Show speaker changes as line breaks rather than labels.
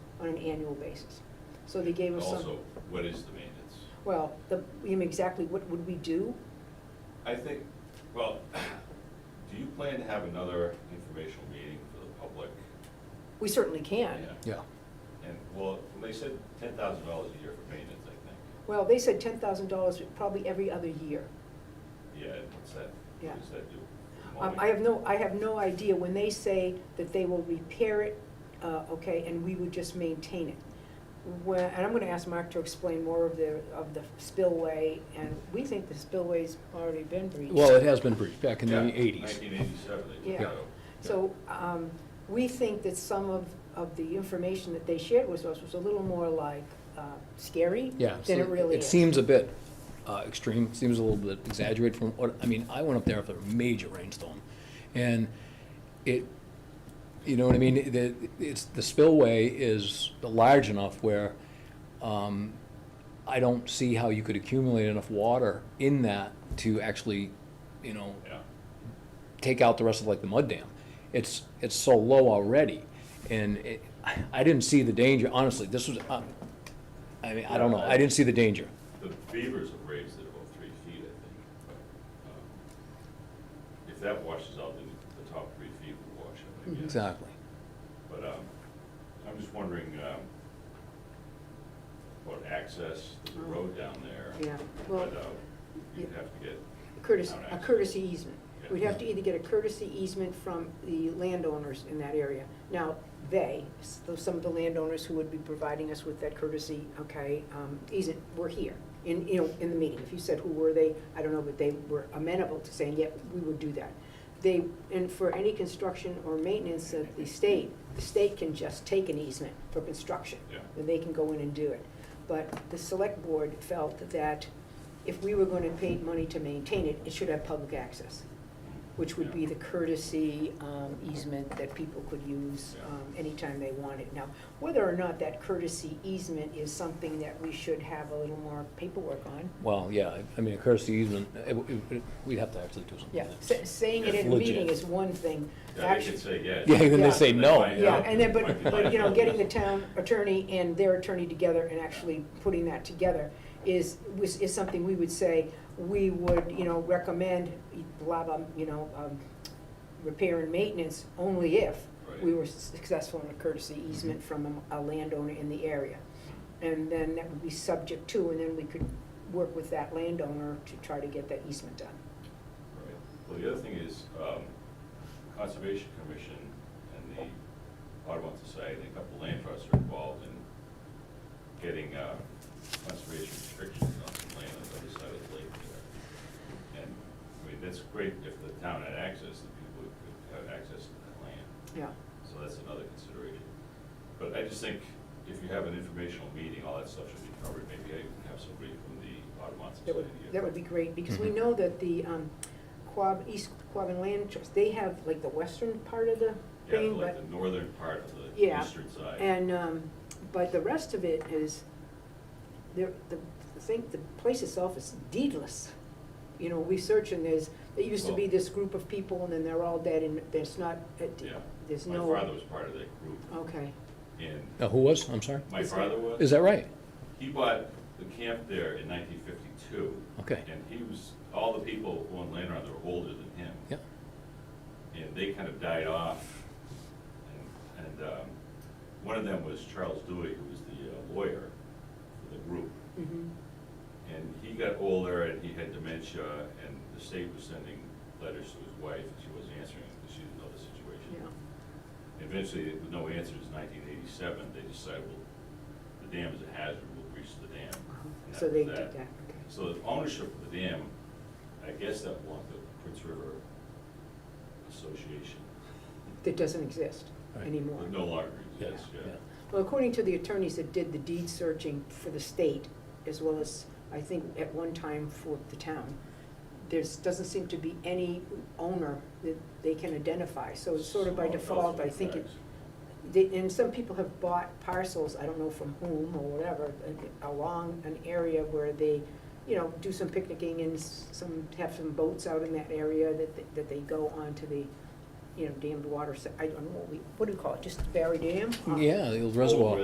on an annual basis. So they gave us some.
Also, what is the maintenance?
Well, the, you mean exactly what would we do?
I think, well, do you plan to have another informational meeting for the public?
We certainly can.
Yeah,
And, well, they said ten thousand dollars a year for maintenance, I think.
Well, they said ten thousand dollars probably every other year.
Yeah, and what's that,
Yeah.
what does that do?
Um, I have no, I have no idea, when they say that they will repair it, uh, okay, and we would just maintain it. When, and I'm gonna ask Mark to explain more of the, of the spillway, and we think the spillway's already been breached.
well, it has been breached back in the
Yeah,
eighties.
Nineteen eighty-seven, they
Yeah.
took it out.
So, um, we think that some of, of the information that they shared with us was a little more like, uh, scary
Yeah.
than
so
it really is.
seems a bit uh, extreme, seems a little bit exaggerated from what, I mean, I went up there after a major rainstorm. And it, you know what I mean, It- it- it's, the spillway is large enough where um, I don't see how you could accumulate enough water in that to actually, you know,
Yeah,
take out the rest of like the mud dam. It's it's so low already, and it, I didn't see the danger. Honestly, this was. Uh, I mean, I don't know. I didn't see the danger.
the beavers have raised it about three feet, I think, but, um, if that washes out, then the top three feet will wash out, I guess.
Exactly.
But um, I'm just wondering um, about access to the road down there.
Yeah, well,
But uh, you'd have to get,
courtesy,
Not
a
access.
courtesy easement. We'd have to
Yeah.
either get a courtesy easement from the landowners in that area. Now, they, s- those- some of the landowners who would be providing us with that courtesy, okay, um, easement, were here in, you know, in the meeting. If you said who were they, I don't know, but they were amenable to saying, yeah, we would do that. They, and for any construction or maintenance of the state, the state can just take an easement for construction
yeah,
then they can go in and do it. But the select board felt that if we were going to pay money to maintain it, it should have public access, which would be the courtesy um, easement that people could use um, anytime they wanted. Now, whether or not that courtesy easement is something that we should have a little more paperwork on,
Well, yeah. I mean, a courtesy easement. It, it, it, we'd have to actually do something.
yeah, sa- saying it in a
Legit.
meeting is one thing.
yeah, they
Actu-
could say yes.
Yeah. Then
Yeah.
they say no.
Right.
Yeah, and then, but, but, you know, getting the town attorney and their attorney together and actually putting that together is, was, is something we would say, we would, you know, recommend, blah, blah, you know, um, repair and maintenance only if we
Right.
were successful in a courtesy easement from a a landowner in the area. And then that would be subject to, and then we could work with that landowner to try to get that easement done.
Right. Well, the other thing is um, Conservation Commission and the Audubon Society and a couple land trusts are involved in getting uh, conservation restrictions on some land on the other side of the lake there. And, I mean, that's great if the town had access, the people could have access to that land.
Yeah,
So that's another consideration. But I just think if you have an informational meeting, all that stuff should be covered. Maybe I can have somebody from the Audubon
that would,
Society.
that would be great, because we
Mhm.
know that the, um, Quab, East Quabbin Land Trust, they have like the western part of the
Yeah,
thing,
like
but,
the northern part of the
Yeah.
eastern side.
and, um, but the rest of it is, there, the, the thing, the place itself is deedless. You know, we search and there's, there used to be
Well-
this group of people and then they're all dead and there's not, it-
Yeah.
there's
My
no.
father was part of that group
Okay,
and
Uh, who was? I'm sorry.
my
Is that-
father was.
Is that right?
He bought the camp there in nineteen fifty-two.
Okay.
And he was, all the people who owned land around there were older than him.
Yeah.
and they kind of died off. And, and um, one of them was Charles Dewey, who was the uh, lawyer for the group.
mhm,
And he got older and he had dementia, and the state was sending letters to his wife, and she wasn't answering because she didn't know the situation.
yeah,
Eventually, with no answers, in nineteen eighty-seven, they decided, well, the dam is a hazard, we'll breach the dam. And
Uh-huh. so
that
they
was
did that,
that.
okay,
So the ownership of the dam, I guess that belonged to Prince River Association.
that doesn't exist
Right.
anymore.
It no longer exists, yeah.
Well, according to the attorneys that did the deed searching for the state, as well as, I think, at one time for the town, there's, doesn't seem to be any owner that they can identify, so it's sort of by
Someone else
default, I
with
think it,
tax.
they, and some people have bought parcels, I don't know from whom or whatever, uh, along an area where they, you know, do some picnicking and s- some, have some boats out in that area that, they- that they go onto the, you know, dammed water, se- I don't know, what we- what do you call it, just Barry Dam? Uh,
Yeah, the old reservoir.